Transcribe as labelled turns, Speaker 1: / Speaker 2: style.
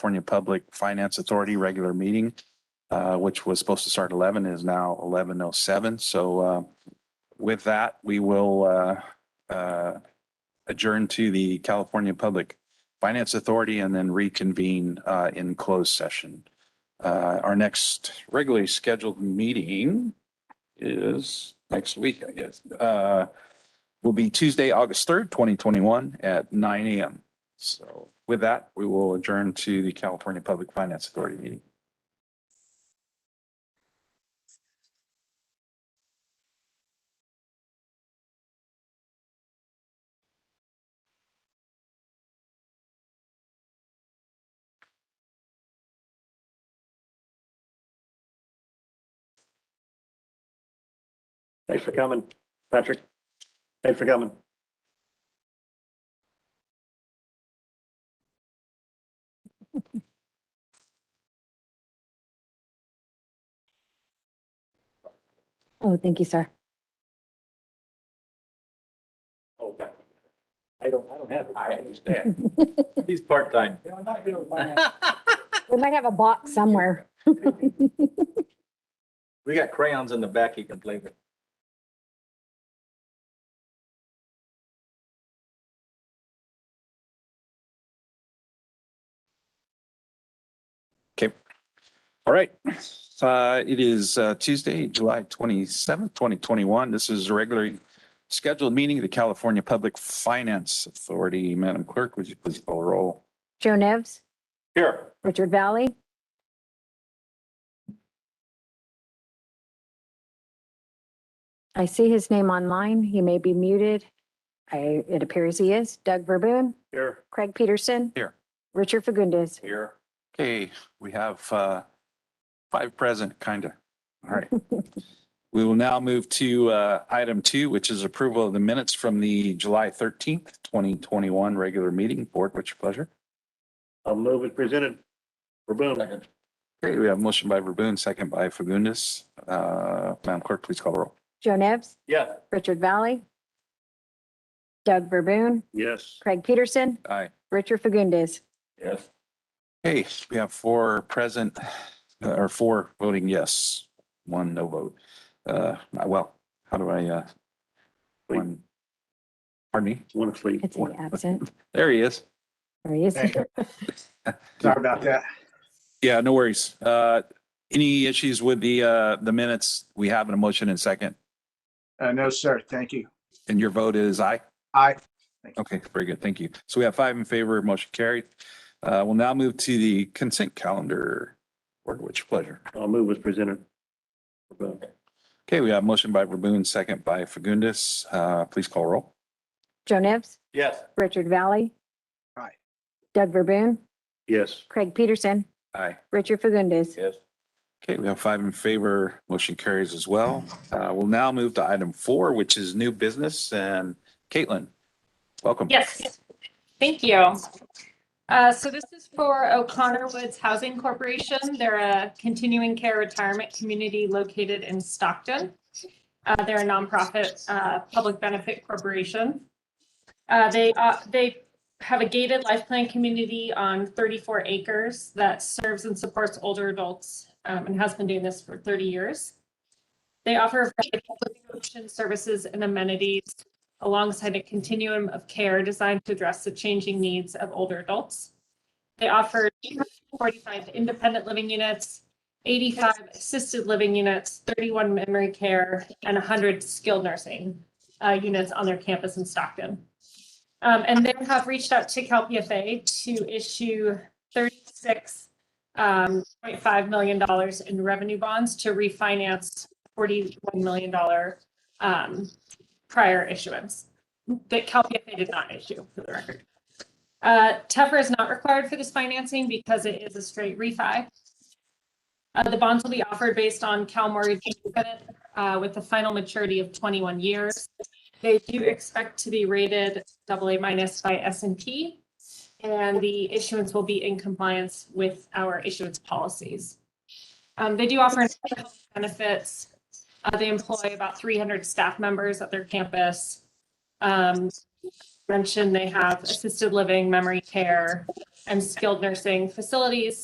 Speaker 1: California Public Finance Authority regular meeting, uh, which was supposed to start eleven is now eleven oh seven. So, uh, with that, we will, uh, uh, adjourn to the California Public Finance Authority and then reconvene, uh, in closed session. Uh, our next regularly scheduled meeting is next week, I guess. Uh, will be Tuesday, August third, twenty twenty-one at nine AM. So with that, we will adjourn to the California Public Finance Authority meeting.
Speaker 2: Thanks for coming, Patrick. Thanks for coming.
Speaker 3: Oh, thank you, sir.
Speaker 2: I don't, I don't have. I understand. He's part-time.
Speaker 3: We might have a box somewhere.
Speaker 2: We got crayons in the back he can play with.
Speaker 1: All right. Uh, it is uh, Tuesday, July twenty-seventh, twenty twenty-one. This is a regularly scheduled meeting of the California Public Finance Authority. Madam Clerk, would you please call the roll?
Speaker 3: Joe Nevs,
Speaker 2: Here.
Speaker 3: Richard Valley. I see his name online. He may be muted. I, it appears he is. Doug Verboon,
Speaker 2: Here.
Speaker 3: Craig Peterson.
Speaker 1: Here.
Speaker 3: Richard Fagundes.
Speaker 2: Here.
Speaker 1: Okay, we have uh, five present, kind of. All right. We will now move to uh, item two, which is approval of the minutes from the July thirteenth, twenty twenty-one regular meeting. Board, what's your pleasure?
Speaker 2: I'll move it presented. Verboen.
Speaker 1: Okay, we have motion by Verboen, second by Fagundes. Uh, Madam Clerk, please call the roll.
Speaker 3: Joe Nevs,
Speaker 2: Yeah.
Speaker 3: Richard Valley. Doug Verboon,
Speaker 2: Yes.
Speaker 3: Craig Peterson,
Speaker 1: Aye.
Speaker 3: Richard Fagundes.
Speaker 2: Yes.
Speaker 1: Okay, we have four present, uh, or four voting yes, one no vote. Uh, well, how do I, uh, one? Pardon me?
Speaker 2: Want to sleep.
Speaker 3: It's an absent.
Speaker 1: There he is.
Speaker 3: There he is.
Speaker 4: Sorry about that.
Speaker 1: Yeah, no worries. Uh, any issues with the, uh, the minutes? We have an motion and second,
Speaker 4: Uh, no, sir. Thank you.
Speaker 1: and your vote is aye?
Speaker 4: Aye.
Speaker 1: Okay, very good. Thank you. So we have five in favor, motion carried. Uh, we'll now move to the consent calendar. Board, which pleasure.
Speaker 2: I'll move it presented. Verboen.
Speaker 1: Okay, we have motion by Verboen, second by Fagundes. Uh, please call roll.
Speaker 3: Joe Nevs,
Speaker 2: Yes.
Speaker 3: Richard Valley.
Speaker 4: Aye.
Speaker 3: Doug Verboon,
Speaker 2: Yes.
Speaker 3: Craig Peterson,
Speaker 1: Aye.
Speaker 3: Richard Fagundes.
Speaker 2: Yes.
Speaker 1: Okay, we have five in favor, motion carries as well. Uh, we'll now move to item four, which is new business and Caitlin, welcome.
Speaker 5: Yes, thank you. Uh, So this is for O'Connor Woods Housing Corporation. They're a continuing care retirement community located in Stockton. Uh, They're a nonprofit, uh, public benefit corporation. Uh, They, uh, they have a gated life plan community on 34 acres that serves and supports older adults um, and has been doing this for 30 years. They offer a variety of public option services and amenities alongside a continuum of care designed to address the changing needs of older adults. They offer 45 independent living units, 85 assisted living units, 31 memory care, and 100 skilled nursing uh, units on their campus in Stockton. Um, And they have reached out to CalPFA to issue 36.5 million dollars in revenue bonds to refinance $41 million um, prior issuance that CalPFA did not issue, for the record. Uh, Tefra is not required for this financing because it is a straight refi. Uh, the bonds will be offered based on Cal mortgage credit, uh, with a final maturity of twenty-one years. They do expect to be rated double A minus by S and P. And the issuance will be in compliance with our issuance policies. Um, they do offer benefits, uh, they employ about three hundred staff members at their campus. Um, mentioned, they have assisted living, memory care, and skilled nursing facilities.